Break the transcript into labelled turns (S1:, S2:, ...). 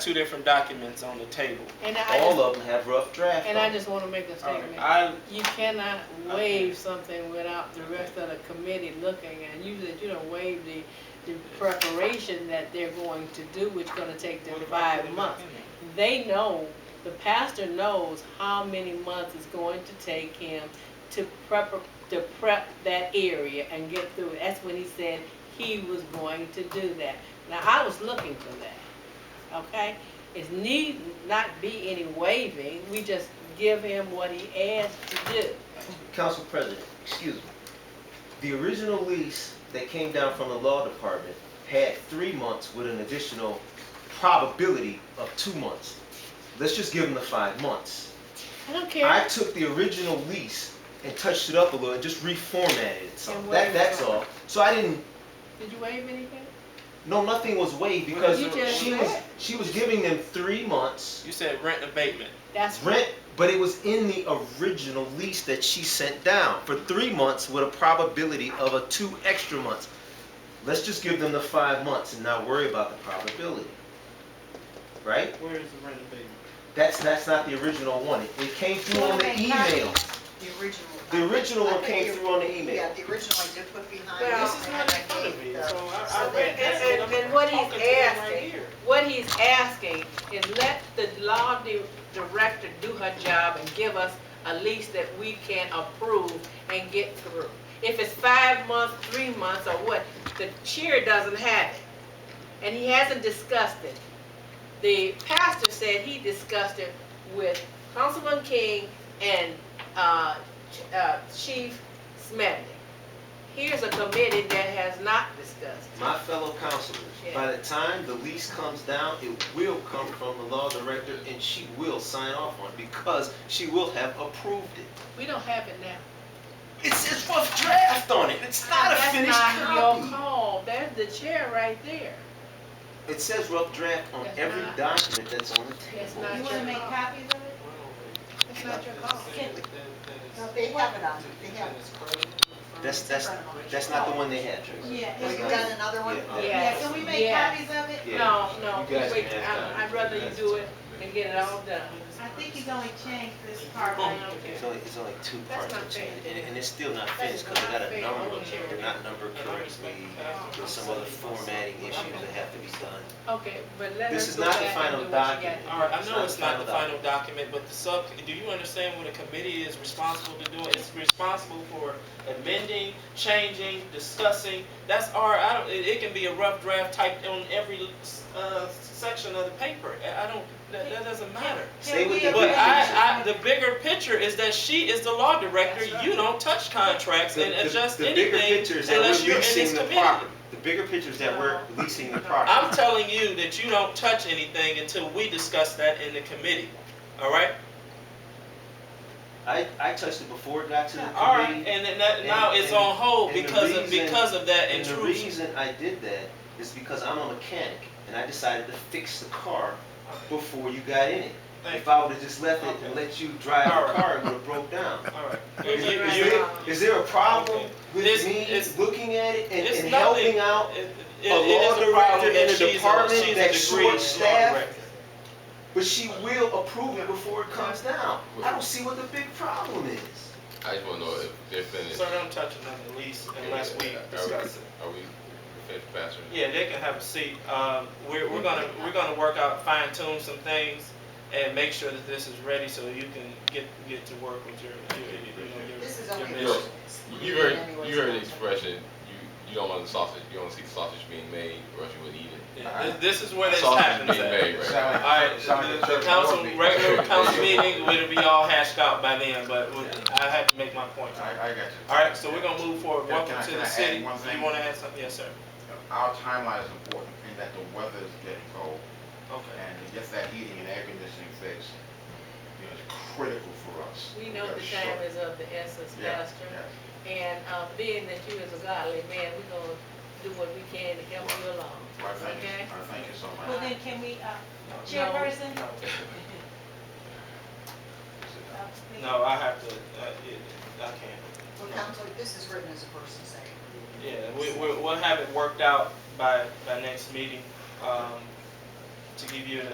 S1: two different documents on the table.
S2: And I
S3: All
S2: just,
S3: of them have rough draft
S2: and I
S3: on it.
S2: just wanna make a statement.
S1: I,
S2: You cannot waive something without the rest of the committee looking, and usually you don't waive the, the preparation that they're going to do, which gonna take them five months. They know, the pastor knows how many months it's going to take him to prep, to prep that area and get through it. That's when he said he was going to do that. Now, I was looking for that, okay? It need not be any waiving, we just give him what he asked to do.
S3: Council President, excuse me. The original lease that came down from the law department had three months with an additional probability of two months. Let's just give them the five months.
S2: I don't
S3: I
S2: care.
S3: took the original lease and touched it up a little and just reformatted it some.
S2: And
S3: That,
S2: what-
S3: that's all. So I didn't,
S2: Did you waive anything?
S3: no, nothing was waived because
S2: You just
S3: she was,
S2: said.
S3: she was giving them three months
S1: You said rent abatement.
S2: That's
S3: rent, but it was in the original lease that she sent down for three months with a probability of a two extra months. Let's just give them the five months and not worry about the probability. Right?
S1: Where is the rent abatement?
S3: That's, that's not the original one. It it came through on the
S4: Okay,
S3: email.
S4: The original.
S3: The original one came through on the email.
S4: Yeah, the original I did put behind.
S2: Well,
S4: this
S1: This is
S4: and
S1: not
S4: I
S1: in front of me,
S4: gave
S1: so
S4: the-
S1: I, I read
S2: And-
S1: this
S2: and-
S1: and I'm
S2: and what he's
S1: talking to them right
S2: asking.
S1: here.
S2: What he's asking is let the law di- director do her job and give us a lease that we can approve and get through. If it's five months, three months, or what, the chair doesn't have it, and he hasn't discussed it. The pastor said he discussed it with Councilman King and, uh, Ch- uh, Chief Smedley. Here's a committee that has not discussed. it.
S3: My fellow councilors, by the time the lease comes down, it will come from the law director and she will sign off on it because she will have approved it.
S2: We don't have it now.
S3: It says rough draft on it. It's not a finished
S2: That's not your
S3: copy.
S2: call, there's the chair right there.
S3: It says rough draft on
S2: That's
S3: every
S2: not-
S3: document that's on the
S2: That's
S3: table.
S2: not
S5: You
S2: your
S5: wanna make
S2: call.
S5: copies of it? It's not your call.
S4: No, they have it on, they have it.
S3: That's, that's, that's not the one they had, Tracy.
S5: Yeah.
S4: Well, you got another one?
S3: Yeah.
S5: Yeah,
S2: Yes,
S5: can we make
S2: yes.
S5: copies of it?
S3: Oh. Yeah.
S2: No, no,
S3: You guys
S2: wait,
S3: can have
S2: I-
S3: that.
S2: I'd rather you
S3: That's-
S2: do it and get it all done.
S5: I think he's only changed this part right here.
S3: It's only, it's only two
S2: That's
S3: parts
S2: not
S3: of change,
S2: fair.
S3: and, and it's still not
S2: That's
S3: finished, because they got
S2: not fair.
S3: a number,
S2: Okay.
S3: they're not numbered correctly. There's some other formatting issues that have to be done.
S2: Okay, but let
S3: This
S2: us
S3: is
S2: go
S3: not the
S2: back and
S3: final
S2: do what you
S3: document.
S2: got.
S1: All right, I
S3: It's
S1: know
S3: not
S1: it's
S3: the
S1: not the
S3: final
S1: final document, but the sub, do you understand what a committee is responsible to do? It's responsible for amending, changing, discussing. That's our, I don't, it, it can be a rough draft typed on every, uh, section of the paper. I I don't, that, that doesn't matter.
S3: Stay
S5: Can
S3: with
S5: we
S3: the
S1: But
S5: agree?
S3: big picture.
S1: I, I, the bigger picture is that she is the law director.
S2: That's right.
S1: You don't touch contracts
S3: The-
S1: and
S3: the-
S1: adjust
S3: the bigger
S1: anything
S3: picture is that
S1: unless
S3: we're
S1: you're in this
S3: leasing the
S1: committee.
S3: property. The bigger picture is that we're leasing the property.
S1: I'm telling you that you don't touch anything until we discuss that in the committee, all right?
S3: I, I touched it before it got to the
S1: All right,
S3: committee.
S1: and then that,
S3: And-
S1: now it's
S3: and-
S1: on hold
S3: and the
S1: because of,
S3: reason-
S1: because of that
S3: And the
S1: intrusion.
S3: reason I did that is because I'm a mechanic, and I decided to fix the car before you got in it.
S1: Thank
S3: If I would've just left it and
S1: Okay.
S3: let you drive
S1: All
S3: the
S1: right.
S3: car, it would've broke down.
S1: you. All right.
S3: Is
S1: You-
S3: is
S1: you-
S3: there, is there a problem
S1: Okay.
S3: with
S1: This-
S3: me
S1: it's-
S3: looking at it and,
S1: it's
S3: and
S1: nothing.
S3: helping out?
S1: it- it-
S3: a
S1: it is
S3: law
S1: a problem
S3: director in
S1: that
S3: a
S1: she's
S3: department
S1: she's a
S3: that's
S1: degree law
S3: short-staffed?
S1: director.
S3: But she will approve it before it comes down. I don't see what the big problem is.
S6: I just wanna know if they're finished.
S1: Sir, don't touch another lease unless we
S6: Are we-
S1: discuss it.
S6: Are we finished, Pastor?
S1: Yeah, they can have a seat. Um, we're, we're gonna, we're gonna work out, fine tune some things and make sure that this is ready so you can get, get to work with your, your, your-
S4: This is
S1: your,
S4: only.
S1: your
S6: Yes.
S1: mission.
S6: You heard, you heard the expression, you, you don't want the sausage, you don't see the sausage being made, or else you wouldn't eat it.
S1: Yeah, This, this is where this
S6: Sausage
S1: happens
S6: being
S1: at.
S6: made, right?
S1: All right, the, the council, regular council meeting, it'll be all hashed out by then, but we- I have to make my point.
S7: I, I got you.
S1: All right, so we're gonna move forward.
S7: Yeah,
S1: Welcome
S7: can I-
S1: to
S7: can
S1: the
S7: I add
S1: city.
S7: one
S1: You
S7: thing?
S1: wanna add something? Yes, sir.
S7: Our timeline is important in that the weather is getting cold,
S1: Okay.
S7: and it gets that heating and air conditioning fixed. You know, it's critical for us.
S2: We know the
S7: gotta
S2: time
S7: shut-
S2: is of the essence,
S7: Yeah,
S2: Pastor,
S7: yeah.
S2: and, uh, being that you is a godly man, we gonna do what we can to help you along.
S7: Well, thank you,
S2: Okay.
S7: I thank you so much.
S5: Well, then can we, uh, chairperson?
S7: No.
S5: Uh, we-
S1: No, I have to, uh, yeah, I can't.
S4: Well, council, this is written as a person saying.
S1: Yeah, we, we, we'll have it worked out by, by next meeting, um, to give you an